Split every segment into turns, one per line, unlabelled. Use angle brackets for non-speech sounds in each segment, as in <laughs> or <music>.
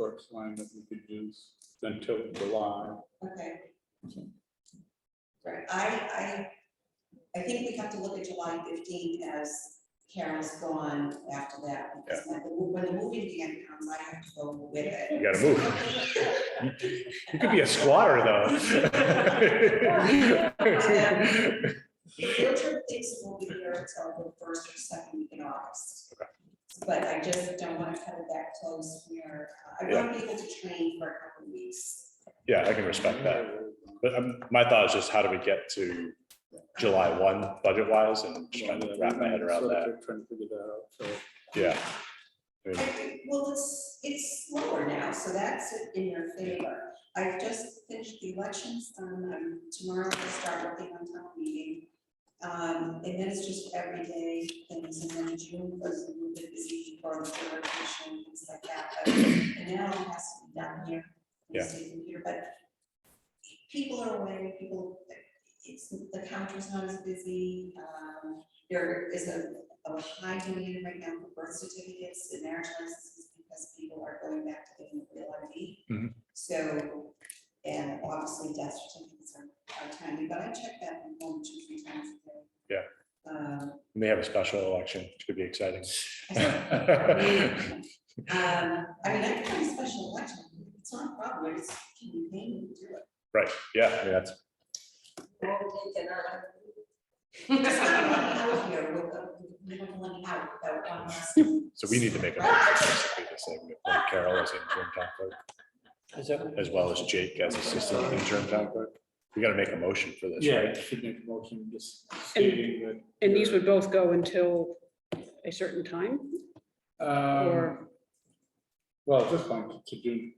text line that we could use until July.
Okay. Right, I, I, I think we have to look at July fifteen as Carol's gone after that. because when the- When the moving van comes, I have to go with it.
You gotta move. You could be a squatter,
<laughs>
though.
Richard thinks we'll be here until the first or second week in August. But I just don't want to cut it that close where, uh, I want to be able to train for a couple of weeks.
Yeah, I can respect that. But um, my thought is just how do we get to July one budget wise and just trying to wrap my head around that.
Trying to figure that out, so.
Yeah. I mean,
I- Well, it's, it's slower now, so that's in your favor. I've just finished the elections, um, um, tomorrow I start working on town meeting. Um, and then it's just everyday things, and then June was a little bit busy for the election, things like that, but and now it has to be done here. in the
Yeah.
state computer, But people are away, people, it's, the counter's not as busy, um, there is a of high demand right now for birth certificates and marriage licenses because people are going back to getting the real ID.
Mhm.
So, and obviously death certificates are, are timely, but I check that one, two, three times a day.
Yeah.
Um,
We may have a special election, which could be exciting.
um,
<laughs>
I mean, I can have a special election, it's not a problem, it's, can you pay me to do it?
Right, yeah, I mean, that's,
It's not letting out here, we'll, we don't let it out without one
<laughs>
person.
so we need to make a motion basically to say we appoint Carol as interim town clerk,
Is that?
as well as Jake as assistant interim town clerk. We gotta make a motion for this,
Yeah,
right?
you should make a motion just stating
And these would both go until a certain time,
that. um,
or,
Well, at this point, to June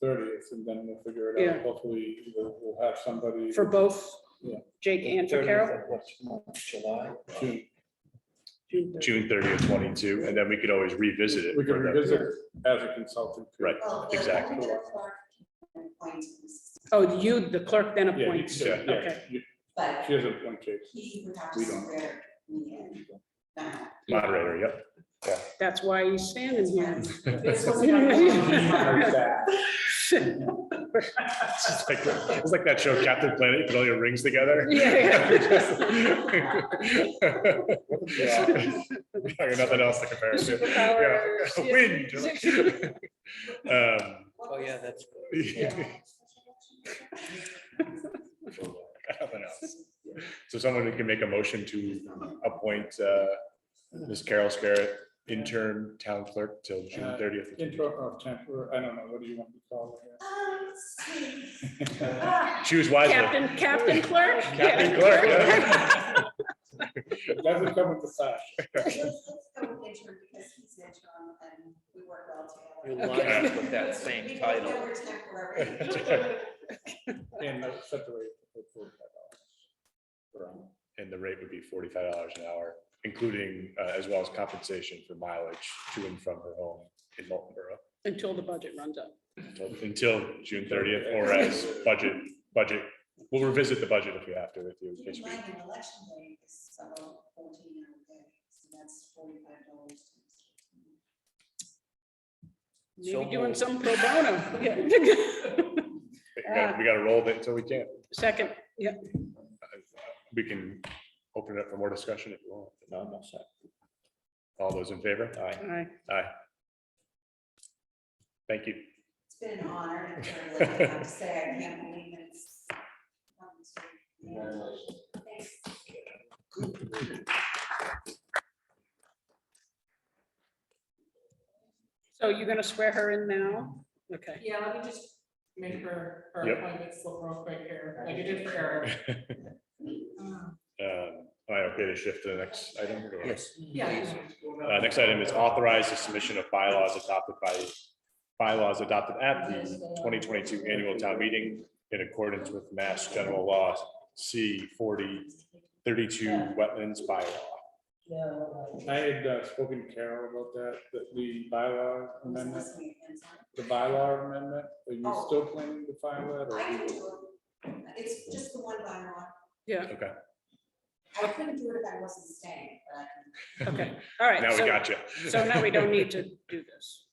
thirtieth, and then we'll figure it out. Hopefully, we'll, we'll have somebody.
for both
Yeah.
Jake and for Carol?
July.
June.
June thirtieth, twenty-two, and then we could always revisit it.
We can
for the-
revisit as a consultant.
Right.
Well, the
Exactly.
manager clerk can appoint us,
Oh, you, the clerk then
Yeah, you-
appoints.
yeah, yeah,
Okay.
you-
But
she has a point,
<laughs>
Jake.
He would have to
We don't.
swear me in. now.
<laughs> Moderator, yep.
That's why he's standing <laughs> here.
This was
You know what I
<laughs> my-
mean?
It's just like, it's like that show Captain Planet, you put all your rings together.
<laughs>
<laughs>
Yeah,
Like Nothing else to compare it to. Yeah. <laughs>
Superpowers, yeah.
Wind.
<laughs>
Um,
Oh, yeah,
<laughs>
that's.
yeah, <laughs> nothing else. So someone can make a motion to appoint uh, Ms. Carol Scarrett interim town clerk till June
Uh,
thirtieth.
<laughs> Intro or temporary, I don't know, what do you want to call
Um, let's
it?
see.
<laughs>
Ah,
Choose wisely.
Captain, Captain clerk?
Captain
Yeah.
Clerk, yeah.
That would come with the sash.
Let's let's go with interim because he's interim and we work well together.
You're
Okay.
lying with that same
We both know
title.
we're
<laughs>
temporary.
And that's separate. for $45.
And the rate would be forty-five dollars an hour, including uh, as well as compensation for mileage to and from her home in Molten Borough.
<laughs> Until the budget runs out.
until- Until June thirtieth, or as budget, budget, we'll revisit the budget if we have to with you. in
Keep
case
in
we-
mind, an election day is about fourteen hour day, so that's forty-five dollars.
So
Maybe doing
moved.
some pro bono. Yeah.
We gotta- we gotta roll it until we can.
<laughs> Second, yeah,
We can open it up for more discussion if you want.
No, I'm not sorry.
All those in favor?
Aye.
all right.
Aye. Thank you. <laughs>
It's been an honor, and it's very lucky, I have to say, I can't believe that it's. come to- Thanks.
So you're gonna swear her in now? Okay.
Yeah, let me just make her, her
Yep.
appointment slip real quick here, like I did for Eric. Um,
Um, Am I okay to shift to the next item? or-
Yes.
Yeah. you know.
Uh, next item is authorize the submission of bylaws adopted by, bylaws adopted at the twenty twenty-two annual town meeting in accordance with Mass General Law C forty thirty-two wetlands bylaw.
I had uh, spoken to Carol about that, that the bylaw
This
amendment,
must be an answer.
the bylaw amendment, are you
Oh.
still planning to file that? or
I
you-
can do it. It's just the one bylaw.
Yeah,
Okay,
I couldn't do it if I wasn't staying, but I can.
okay, all right.
now we
so-
got you. <laughs>
So now we don't need to do this.